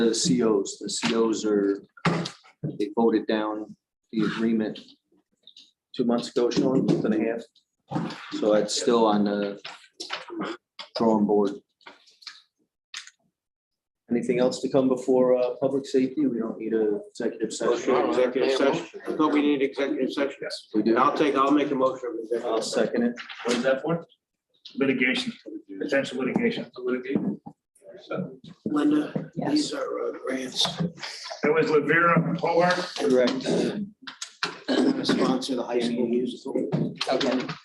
The COs, the COs are, they voted down the agreement two months ago, Sean, month and a half. So it's still on the drawing board. Anything else to come before uh, public safety? We don't need a executive Motion, session. executive session. I thought we needed executive session. We do. I'll take, I'll make a motion. of executive I'll session. second it. What is that for? Litigation, potential litigation. Linda, Yes. these are uh, grants. That was Lavera and Hobart. Correct. Sponsor the high school musical. Okay.